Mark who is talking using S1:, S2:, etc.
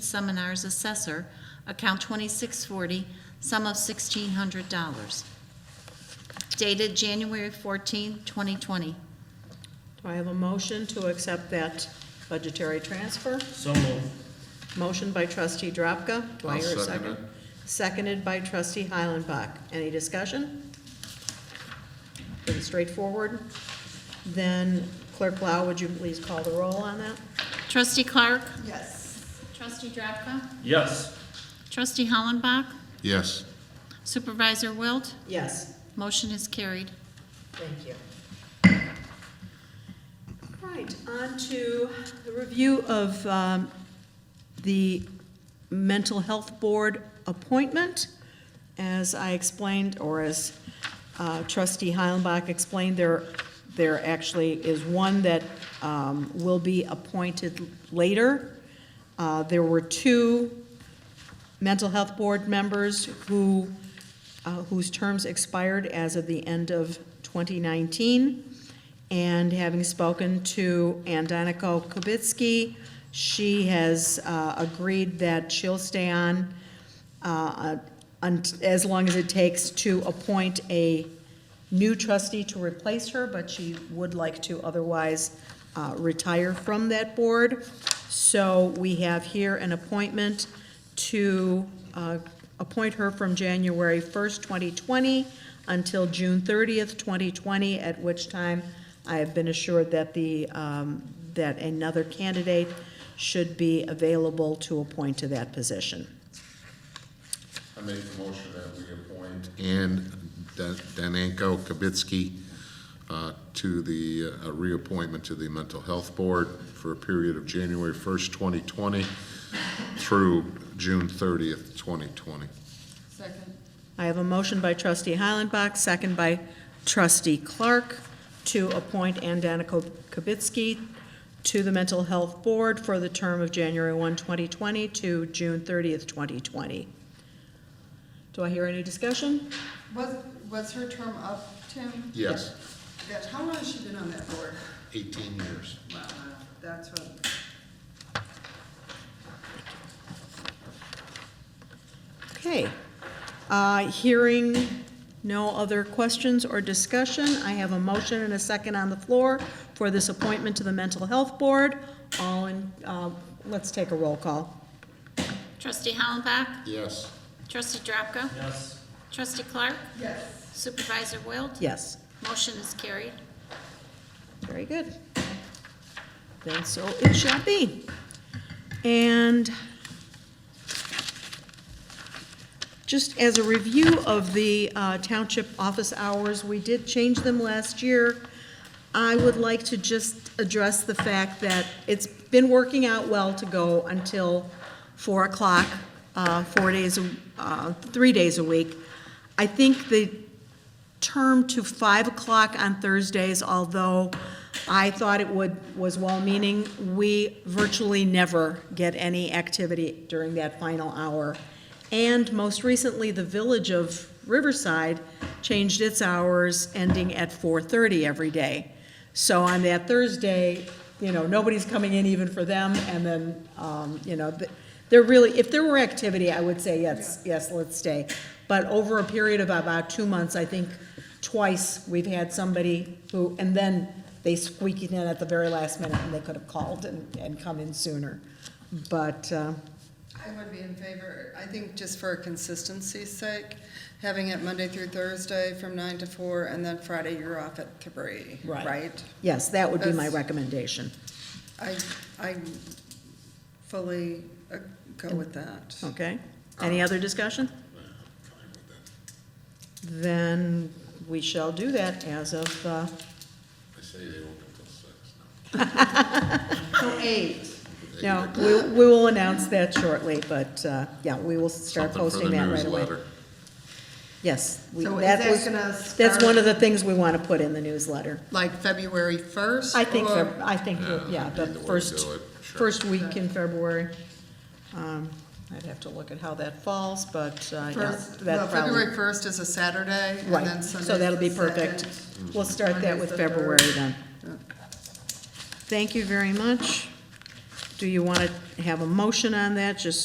S1: Seminars Assessor, account 2640, sum of $1,600. Dated January 14, 2020.
S2: Do I have a motion to accept that budgetary transfer?
S3: So moved.
S2: Motion by trustee Drapka. Do I
S4: I'll
S2: hear a
S4: second it.
S2: Seconded by trustee Heilenbach. Any discussion? Pretty straightforward. Then clerk Lau, would you please call the roll on that?
S1: Trustee Clark?
S2: Yes.
S1: Trustee Drapka?
S3: Yes.
S1: Trustee Hollenbach?
S4: Yes,
S1: Supervisor Wilt?
S2: Yes,
S1: Motion is carried.
S2: thank you. Right, on to the review of um, the Mental Health Board appointment. As I explained, or as uh, trustee Heilenbach explained, there, there actually is one that um, will be appointed later. Uh, There were two mental health board members who, uh, whose terms expired as of the end of 2019. And having spoken to Ann Donico Kubitsky, she has uh, agreed that she'll stay on uh, un- as long as it takes to appoint a new trustee to replace her, but she would like to otherwise uh, retire from that board. So we have here an appointment to uh, appoint her from January 1st, 2020 until June 30th, 2020, at which time I have been assured that the, um, that another candidate should be available to appoint to that position.
S4: I make the motion that we appoint Ann Dan- Danenko Kibitsky uh, to the, uh, reappointment to the Mental Health Board for a period of January 1st, 2020 through June 30th, 2020.
S2: I have a motion by trustee Heilenbach, second by trustee Clark, to appoint Ann Danico Kibitsky to the Mental Health Board for the term of January 1, 2020 to June 30th, 2020. Do I hear any discussion?
S5: Was, was her term up, Tim?
S4: Yes,
S5: That, how long has she been on that board?
S4: 18 years.
S5: Wow, that's what,
S2: Okay. Uh, Hearing no other questions or discussion, I have a motion and a second on the floor for this appointment to the Mental Health Board. All in, uh, let's take a roll call.
S1: Trustee Hollenbach?
S4: Yes.
S1: Trustee Drapka?
S3: Yes.
S1: Trustee Clark?
S5: yes.
S1: Supervisor Wilt?
S2: Yes.
S1: Motion is carried.
S2: Very good. Then so it shall be. And just as a review of the uh, township office hours, we did change them last year. I would like to just address the fact that it's been working out well to go until 4 o'clock, uh, four days, a- uh, three days a week. I think the term to five o'clock on Thursdays, although I thought it would, was well-meaning. We virtually never get any activity during that final hour. And most recently, the Village of Riverside changed its hours, ending at four-thirty every day. So on that Thursday, you know, nobody's coming in even for them, and then, um, you know, th- they're really, if there were activity, I would say, yes, yes, let's stay. But over a period of about two months, I think twice, we've had somebody who, and then they squeaked in at the very last minute, and they could have called and, and come in sooner. But, uh,
S5: I would be in favor, I think just for consistency's sake, having it Monday through Thursday from nine to four, and then Friday you're off at three,
S2: Right.
S5: right?
S2: yes, that would be my
S5: That's-
S2: recommendation.
S5: I, I fully uh, go with that.
S2: Okay, any other discussion? Then we shall do that as of, uh,
S4: I say they open till 6.
S5: So eight.
S2: No, we, we will announce that shortly, but, uh, yeah, we will start
S4: Something for the
S2: posting that right away.
S4: newsletter.
S2: Yes. we-
S5: So is that
S2: was-
S5: gonna
S2: That's
S5: start-
S2: one of the things we want to put in the newsletter.
S5: Like February first?
S2: I think, Feb- I think, that- yeah,
S4: Yeah,
S2: the
S4: either way to
S2: first,
S4: do it, sure.
S2: first week in February. Um, I'd have to look at how that falls, but, uh, yeah,
S5: First, well,
S2: that probably.
S5: February first is a Saturday, and then
S2: Right,
S5: Sunday's
S2: so that'll
S5: the
S2: be perfect.
S5: second.
S2: We'll start that
S5: Monday's
S2: with
S5: the
S2: February
S5: third.
S2: then. Thank you very much. Do you want to have a motion on that, just